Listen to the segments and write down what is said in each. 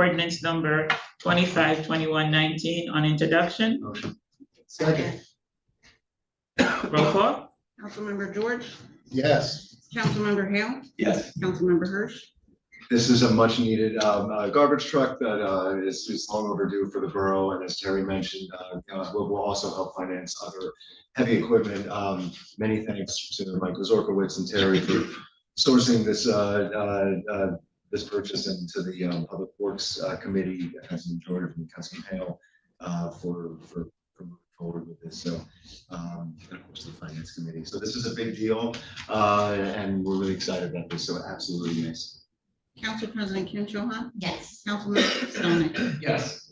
ordinance number twenty-five twenty-one nineteen on introduction. Motion. Second. Roll call? Councilmember George, Yes. Councilmember Hale, Yes. Councilmember Hirsch, This is a much needed um, uh, garbage truck that uh, is is long overdue for the borough. And as Terry mentioned, uh, uh, will will also help finance other heavy equipment. Um, Many thanks to Michael Zorkowitz and Terry for sourcing this, uh, uh, uh, this purchase and to the um, Public Works uh, Committee, Councilman Jordan from Councilman Hale uh, for, for for moving forward with this. So, um, and of course, the Finance Committee. So this is a big deal uh, and we're really excited about this. So absolutely nice. Council President Kim Cho Han, yes, Councilmember Pistonik. Yes.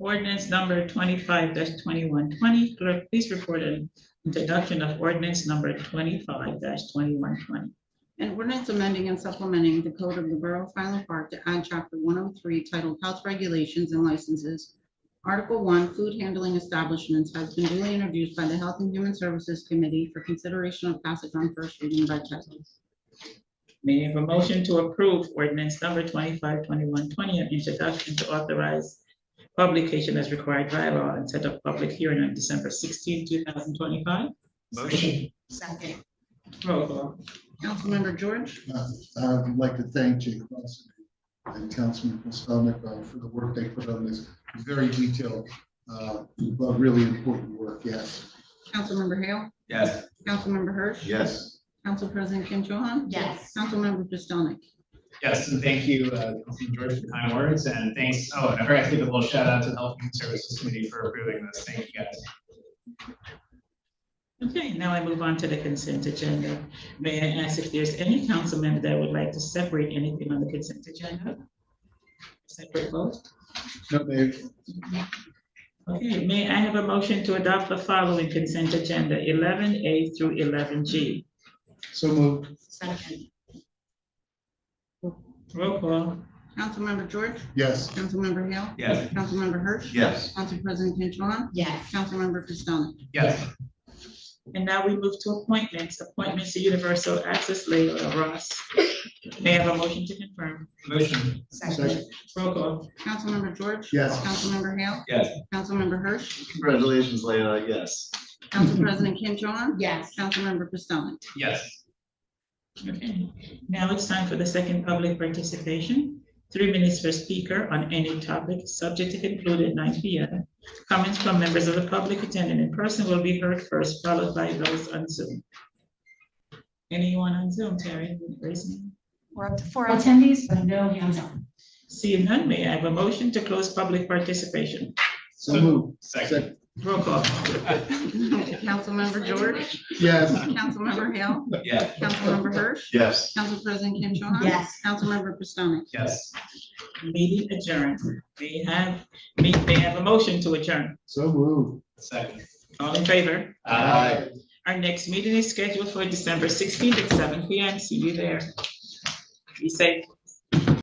Ordinance number twenty-five twenty-one twenty. Clerk, please report an introduction of ordinance number twenty-five twenty-one twenty. An ordinance amending and supplementing the code of the Borough of Highland Park to add chapter one oh three titled Health Regulations and Licenses. Article one, Food Handling Establishments has been duly introduced by the Health and Human Services Committee for consideration of passage on first reading by title. May I have a motion to approve ordinance number twenty-five twenty-one twenty on introduction to authorize publication as required by law and set up public hearing on December 16, thousand twenty-five? Motion. second, Roll call. Councilmember George, I'd like to thank Jake Lawson and Councilman Pistonik uh, for the work they put on this very detailed, uh, but really important work, yes. Councilmember Hale, Yes. Councilmember Hirsch. Yes. Council President Kim Cho Han. yes, Councilmember Pistonik. Yes, and thank you, uh, Councilman George, for the kind words, and thanks, oh, and I forgot to give a little shout out to the Health and Human Services Committee for approving this, thank you guys. Okay, now I move on to the consent agenda. May I ask if there's any council member that would like to separate anything on the consent agenda? Separate vote? No, Mayor, Okay, may I have a motion to adopt the following consent agenda, eleven A through eleven G? so moved, second, Roll call. Councilmember George, yes. Councilmember Hale, Yes. Councilmember Hirsch. Yes. Council President Kim Cho Han, yes, Councilmember Pistonik. Yes, And now we move to appointments, appointments to Universal Access Legal, Ross. May I have a motion to confirm? motion, second, Roll call. Councilmember George. Yes. Councilmember Hale. Yes. Councilmember Hirsch. Congratulations, Leila. Yes. Council President Kim Cho Han. yes, Councilmember Pistonik. yes, Okay, now it's time for the second public participation. Three minutes per speaker on any topic, subject to conclude at nine P M. Comments from members of the public attending in person will be heard first, followed by those on Zoom. Anyone on Zoom, Terry, raise your hand. We're up to four attendees, but no hands up. Seeing none, may I have a motion to close public participation? So moved, second, Roll call. Councilmember George. yes. Councilmember Hale. yes, Councilmember Hirsch. Yes. Council President Kim Cho Han. yes, Councilmember Pistonik. yes, Meeting adjourned. May I have, may may I have a motion to adjourn? So moved. second. All in favor? Uh, Our next meeting is scheduled for December sixteenth at seven P M. See you there. Be safe.